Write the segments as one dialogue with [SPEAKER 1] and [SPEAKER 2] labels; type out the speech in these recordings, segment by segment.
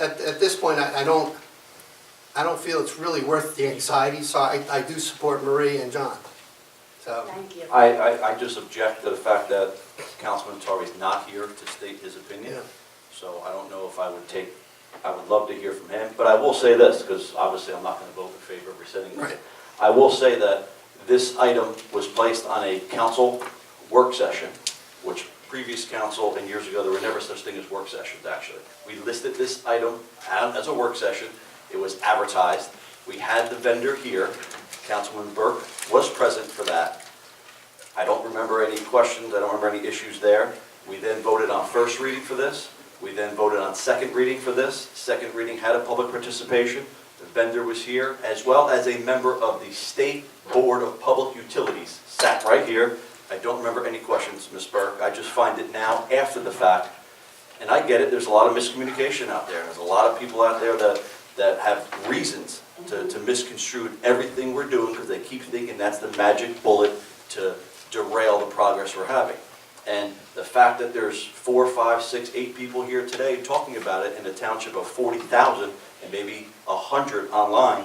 [SPEAKER 1] At, at this point, I, I don't, I don't feel it's really worth the anxiety, so I, I do support Marie and John. So,
[SPEAKER 2] Thank you.
[SPEAKER 3] I, I, I just object to the fact that Councilman Atari's not here to state his opinion.
[SPEAKER 1] Yeah.
[SPEAKER 3] So I don't know if I would take, I would love to hear from him, but I will say this, because obviously I'm not going to vote in favor of rescinding this.
[SPEAKER 1] Right.
[SPEAKER 3] I will say that this item was placed on a council work session, which previous council and years ago, there were never such thing as work sessions, actually. We listed this item out as a work session, it was advertised, we had the vendor here, Councilman Burke was present for that. I don't remember any questions, I don't remember any issues there. We then voted on first reading for this, we then voted on second reading for this. Second reading had a public participation, the vendor was here, as well as a member of the State Board of Public Utilities sat right here. I don't remember any questions, Ms. Burke, I just find it now after the fact, and I get it, there's a lot of miscommunication out there, there's a lot of people out there that, that have reasons to, to misconstrue everything we're doing, because they keep thinking that's the magic bullet to derail the progress we're having. And the fact that there's four, five, six, eight people here today talking about it in a township of forty thousand, and maybe a hundred online,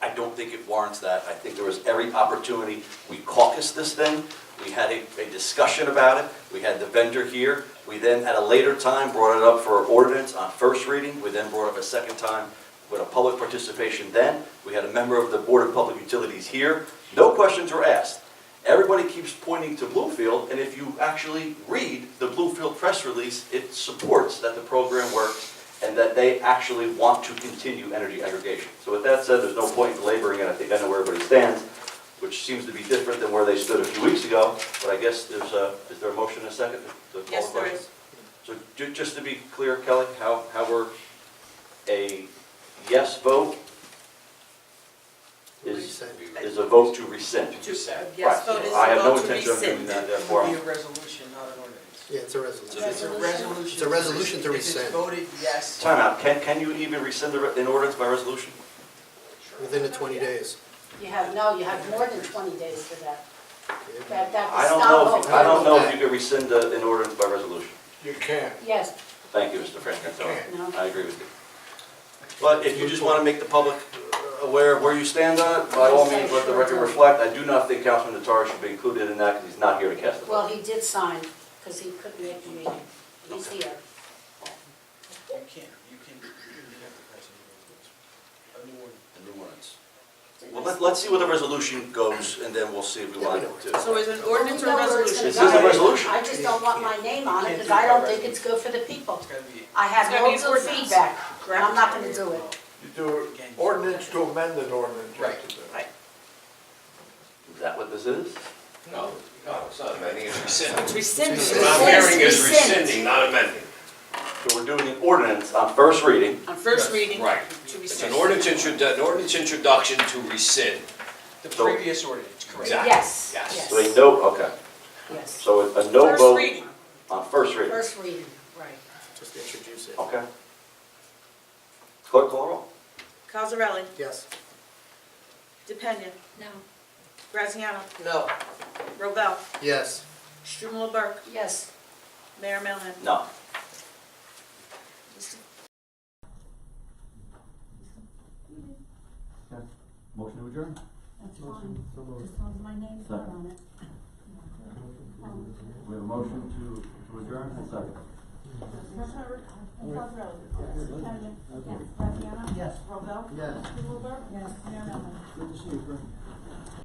[SPEAKER 3] I don't think it warrants that. I think there was every opportunity. We caucused this thing, we had a, a discussion about it, we had the vendor here. We then, at a later time, brought it up for ordinance on first reading. We then brought it up a second time with a public participation then. We had a member of the Board of Public Utilities here. No questions were asked. Everybody keeps pointing to Bluefield, and if you actually read the Bluefield press release, it supports that the program works and that they actually want to continue energy aggregation. So with that said, there's no point in laboring, and I think I know where everybody stands, which seems to be different than where they stood a few weeks ago, but I guess there's a, is there a motion and a second to call the
[SPEAKER 4] Yes, there
[SPEAKER 3] question?
[SPEAKER 4] is.
[SPEAKER 3] So ju- just to be clear, Kelly, how, how we're a yes vote is,
[SPEAKER 1] Rescind.
[SPEAKER 3] is a vote to rescind.
[SPEAKER 4] To say,
[SPEAKER 3] Right.
[SPEAKER 4] yes, vote is
[SPEAKER 3] I have no
[SPEAKER 4] vote to
[SPEAKER 3] intention of doing
[SPEAKER 4] rescind.
[SPEAKER 3] that, therefore,
[SPEAKER 5] It'll be
[SPEAKER 3] I'm-
[SPEAKER 5] a resolution, not an ordinance.
[SPEAKER 1] yeah, it's a
[SPEAKER 5] So
[SPEAKER 1] resolution.
[SPEAKER 5] it's a resolution.
[SPEAKER 1] It's a resolution to
[SPEAKER 5] If
[SPEAKER 1] rescind.
[SPEAKER 5] it's voted yes,
[SPEAKER 3] timeout, can, can you even rescind the re- an ordinance by resolution?
[SPEAKER 1] Within the 20 days.
[SPEAKER 2] You have, no, you have more than 20 days for that. That, that
[SPEAKER 3] I
[SPEAKER 2] was
[SPEAKER 3] don't know, if-
[SPEAKER 2] not
[SPEAKER 3] I
[SPEAKER 2] over.
[SPEAKER 3] don't know if you could rescind a- an ordinance by resolution.
[SPEAKER 6] You can.
[SPEAKER 2] Yes,
[SPEAKER 3] Thank you, Mr. Francantonio.
[SPEAKER 2] No.
[SPEAKER 3] I agree with you. But if you just want to make the public aware of where you stand on it, by all means, let the record reflect. I do not think Councilman Notari should be included in that because he's not here to cast a
[SPEAKER 2] well,
[SPEAKER 3] vote.
[SPEAKER 2] he did sign, because he couldn't make the meeting. He's
[SPEAKER 3] Okay.
[SPEAKER 2] here.
[SPEAKER 5] you can't, you can, you have to pass a new resolution.
[SPEAKER 3] The new ordinance. Well, let- let's see where the resolution goes and then we'll see if we want to.
[SPEAKER 4] So is an ordinance or
[SPEAKER 2] Well, we know where it's
[SPEAKER 4] resolution?
[SPEAKER 3] This
[SPEAKER 2] gonna
[SPEAKER 3] is a
[SPEAKER 2] go.
[SPEAKER 3] resolution.
[SPEAKER 2] I just don't want my name on it, because I don't think it's good for the people.
[SPEAKER 5] It's gotta be.
[SPEAKER 2] I had
[SPEAKER 4] It's gotta be
[SPEAKER 2] loads
[SPEAKER 4] an
[SPEAKER 2] of
[SPEAKER 4] ordinance.
[SPEAKER 2] feedback, and I'm not gonna do it.
[SPEAKER 6] You do it- ordinance to amend an ordinance. you have to do.
[SPEAKER 5] Right.
[SPEAKER 3] Is that what this is?
[SPEAKER 7] No, no, it's not amending, it's rescinding.
[SPEAKER 4] It's rescinded.
[SPEAKER 7] What I'm hearing is rescinding, not amending.
[SPEAKER 3] So we're doing an ordinance on first reading.
[SPEAKER 4] On first reading.
[SPEAKER 7] Right.
[SPEAKER 4] To
[SPEAKER 7] It's an
[SPEAKER 4] rescind.
[SPEAKER 7] ordinance intro, an ordinance introduction to rescind.
[SPEAKER 5] The
[SPEAKER 3] So-
[SPEAKER 5] previous ordinance, correct.
[SPEAKER 7] Exactly.
[SPEAKER 2] Yes,
[SPEAKER 7] Yes.
[SPEAKER 2] yes,
[SPEAKER 3] So a no, okay.
[SPEAKER 2] yes.
[SPEAKER 3] So a no
[SPEAKER 4] First
[SPEAKER 3] vote
[SPEAKER 4] reading.
[SPEAKER 3] on first reading.
[SPEAKER 2] First reading, right.
[SPEAKER 1] Just introduce it.
[SPEAKER 3] Okay. Clerk, call the roll.
[SPEAKER 4] Cosarelli,
[SPEAKER 1] Yes.
[SPEAKER 4] DePena,
[SPEAKER 2] No.
[SPEAKER 4] Graziano,
[SPEAKER 5] No.
[SPEAKER 4] Robel,
[SPEAKER 1] Yes.
[SPEAKER 4] Strumelob Burke,
[SPEAKER 2] Yes.
[SPEAKER 4] Mayor Melham.
[SPEAKER 3] No. Motion to adjourn?
[SPEAKER 8] That's fine, as long as my name's not on it.
[SPEAKER 3] We have a motion to, to adjourn, and a second.
[SPEAKER 8] Tanya, yes, Graziano? Yes. Robel? Yes. Strumelberg? Yes. Mayor Melvin?